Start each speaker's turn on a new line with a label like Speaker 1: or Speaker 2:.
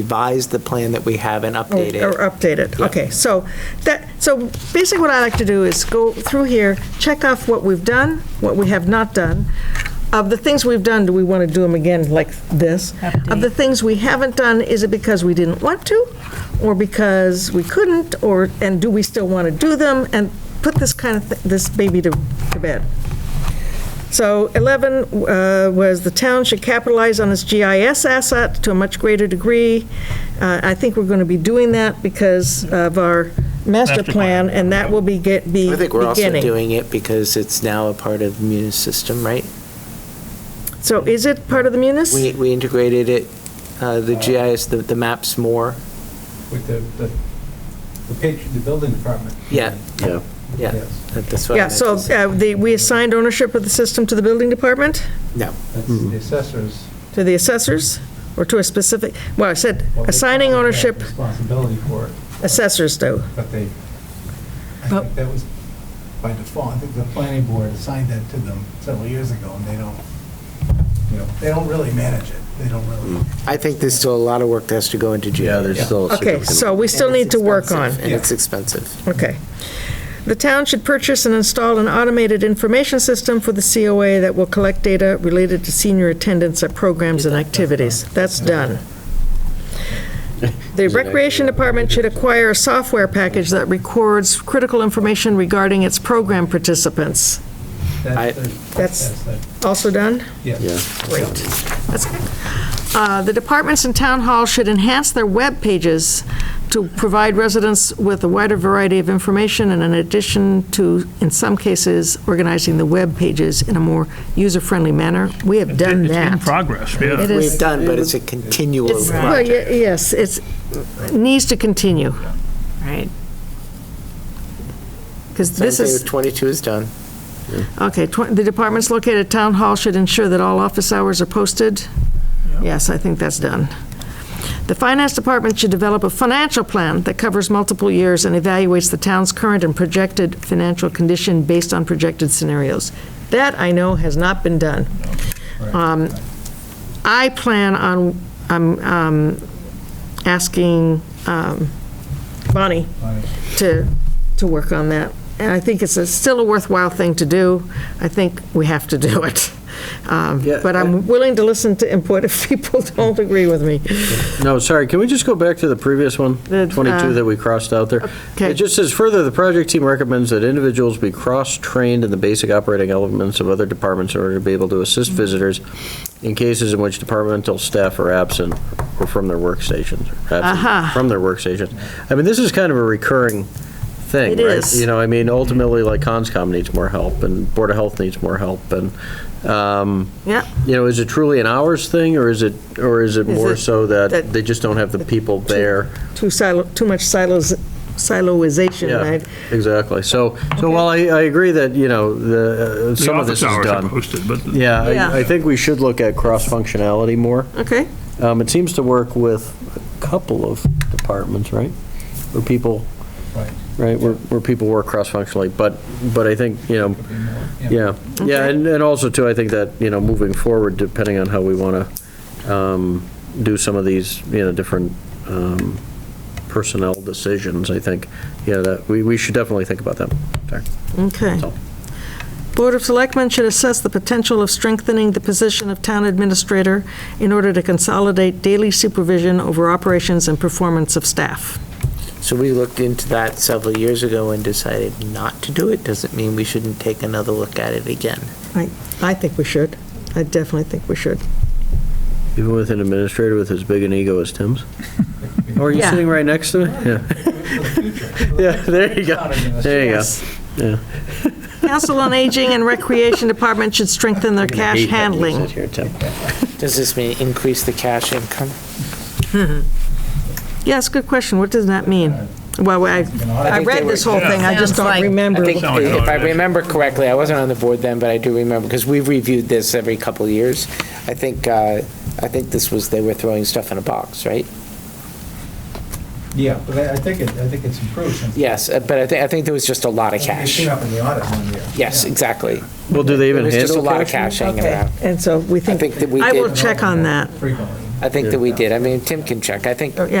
Speaker 1: revise the plan that we have and
Speaker 2: Or
Speaker 1: update
Speaker 2: or
Speaker 1: it.
Speaker 2: update it, okay. So that, so basically what I like to do is go through here, check off what we've done, what we have not done. Of the things we've done, do we want to do them again like this? Of the things we haven't done, is it because we didn't want to? Or because we couldn't, or, and do we still want to do them? And put this kind of, thi- this baby to, to bed. So 11 uh, was the town should capitalize on its GIS asset to a much greater degree. Uh, I think we're going to be doing that because of our master
Speaker 3: Master
Speaker 2: plan,
Speaker 3: plan.
Speaker 2: and that will be get, be
Speaker 1: I think we're also
Speaker 2: beginning.
Speaker 1: doing it because it's now a part of the Munis system, right?
Speaker 2: So is it part of the
Speaker 1: We,
Speaker 2: munis?
Speaker 1: we integrated it, uh, the GIS, the, the maps more,
Speaker 4: With the, the, the patron, the building department.
Speaker 1: Yeah.
Speaker 5: Yeah.
Speaker 1: yeah.
Speaker 4: Yes.
Speaker 1: that- That's what I
Speaker 2: Yeah,
Speaker 1: meant
Speaker 2: so
Speaker 1: to say.
Speaker 2: uh, the, we assigned ownership of the system to the building department,
Speaker 1: No,
Speaker 4: That's
Speaker 5: Mm-hmm.
Speaker 4: the assessors.
Speaker 2: to the assessors, or to a specific, well, I said
Speaker 4: well, they
Speaker 2: assigning
Speaker 4: probably have
Speaker 2: ownership,
Speaker 4: Responsibility for it,
Speaker 2: assessors do.
Speaker 4: but they, I
Speaker 2: But-
Speaker 4: think that was by default, I think the planning board assigned that to them several years ago, and they don't, you know, they don't really manage it, they don't
Speaker 5: Mm.
Speaker 4: really.
Speaker 1: I think there's still a lot of work that has to go into GIS.
Speaker 5: Yeah, there's still. a
Speaker 2: Okay,
Speaker 5: significant-
Speaker 2: so we still
Speaker 1: And it's
Speaker 2: need to work on.
Speaker 1: expensive, And it's expensive.
Speaker 2: Okay. The town should purchase and install an automated information system for the COA that will collect data related to senior attendance at programs and activities. That's done. The Recreation Department should acquire a software package that records critical information regarding its program participants.
Speaker 4: that's
Speaker 1: I-
Speaker 4: the-
Speaker 2: That's-
Speaker 4: the-
Speaker 2: Also done?
Speaker 5: Yeah.
Speaker 4: Yes.
Speaker 2: Great. That's good. Uh, The departments in town hall should enhance their web pages to provide residents with a wider variety of information, and in addition to, in some cases, organizing the web pages in a more user-friendly manner. We have done
Speaker 3: It's in
Speaker 2: that.
Speaker 3: progress, yeah.
Speaker 2: It is-
Speaker 1: We've done, but it's a continual
Speaker 2: It's- Well,
Speaker 1: project.
Speaker 2: ye- yes, it's, needs to continue, right? Because
Speaker 1: So I'd
Speaker 2: this
Speaker 1: say
Speaker 2: is.
Speaker 1: 22 is done.
Speaker 2: Okay, tw- the departments located at Town Hall should ensure that all office hours are posted. Yes, I think that's done. The Finance Department should develop a financial plan that covers multiple years and evaluates the town's current and projected financial condition based on projected scenarios. That, I know, has not been done. Um, I plan on, I'm um, asking um, Bonnie
Speaker 4: Bonnie.
Speaker 2: to, to work on that. And I think it's a- still a worthwhile thing to do. I think we have to do it. Um,
Speaker 5: Yeah,
Speaker 2: But I'm willing to listen to input if people don't agree with me.
Speaker 5: No, sorry, can we just go back to the previous one,
Speaker 2: The, uh,
Speaker 5: 22 that we crossed out there?
Speaker 2: okay.
Speaker 5: It just says, "Further, the project team recommends that individuals be cross-trained in the basic operating elements of other departments in order to be able to
Speaker 2: Mm-hmm.
Speaker 5: assist visitors in cases in which departmental staff are absent or from their workstations, or
Speaker 2: Uh-huh.
Speaker 5: absent from their workstations." I mean, this is kind of a recurring thing,
Speaker 2: It
Speaker 5: right?
Speaker 2: is. Mm-hmm.
Speaker 5: You know, I mean, ultimately, like, CONSCOM needs more help, and Board of Health needs more help, and, um,
Speaker 2: Yeah,
Speaker 5: you know, is it truly an hours thing, or is it, or is it
Speaker 2: Is
Speaker 5: more
Speaker 2: it
Speaker 5: so
Speaker 2: that-
Speaker 5: that they just don't have the people there?
Speaker 2: too silo, too much silos, siloization,
Speaker 5: Yeah,
Speaker 2: right?
Speaker 5: exactly. So, so while I, I agree that, you know, the, uh,
Speaker 3: The
Speaker 5: some of this
Speaker 3: office hours
Speaker 5: is
Speaker 3: are
Speaker 5: done.
Speaker 3: posted, but the-
Speaker 5: Yeah,
Speaker 2: Yeah.
Speaker 5: I, I think we should look at cross-functionality more.
Speaker 2: Okay,
Speaker 5: Um, it seems to work with a couple of departments, right? Where people,
Speaker 4: Right,
Speaker 5: right, where, where people work cross-functionally, but, but I think, you know,
Speaker 4: could be more,
Speaker 5: yeah, yeah, and, and also too, I think that, you know, moving forward, depending on how we want to do some of these, you know, different um, personnel decisions, I think, yeah, that, we, we should definitely think about that. Sorry.
Speaker 2: okay.
Speaker 5: So-
Speaker 2: Board of Selectmen should assess the potential of strengthening the position of town administrator in order to consolidate daily supervision over operations and performance of staff.
Speaker 1: So we looked into that several years ago and decided not to do it. Doesn't mean we shouldn't take another look at it again.
Speaker 2: I, I think we should. I definitely think we should.
Speaker 5: Even with an administrator with as big an ego as Tim's? Oh, are you
Speaker 2: Yeah.
Speaker 5: sitting right next to me? Yeah, yeah, there you go, there you go. Yeah.
Speaker 2: Council on Aging and Recreation Department should strengthen their cash
Speaker 5: Hate having you
Speaker 2: handling.
Speaker 5: sit here, Tim.
Speaker 1: Does this mean increase the cash income?
Speaker 2: Yes, good question. What does that mean? Well, I, I read this whole thing, I just
Speaker 6: Sounds
Speaker 2: don't
Speaker 6: like-
Speaker 2: remember.
Speaker 1: I think,
Speaker 3: Sounds like
Speaker 1: if I
Speaker 3: it is.
Speaker 1: remember correctly, I wasn't on the board then, but I do remember, because we've reviewed this every couple of years. I think, uh, I think this was, they were throwing stuff in a box, right?
Speaker 4: Yeah, but I I think it, I think it's improved since.
Speaker 1: Yes, uh, but I think, I think there was just a lot of
Speaker 4: It
Speaker 1: cash.
Speaker 4: came up in the audit one year.
Speaker 1: Yes, exactly.
Speaker 5: Well, do
Speaker 1: There
Speaker 5: they even
Speaker 1: was just a
Speaker 5: handle
Speaker 1: lot of
Speaker 5: cash?
Speaker 1: cash hanging
Speaker 2: Okay,
Speaker 1: around.
Speaker 2: And so we
Speaker 1: I
Speaker 2: think,
Speaker 1: think that we
Speaker 2: I will
Speaker 1: did,
Speaker 2: check on that.
Speaker 4: Frequently.
Speaker 1: I think that we did. I mean, Tim can check. I think
Speaker 2: Oh, yeah,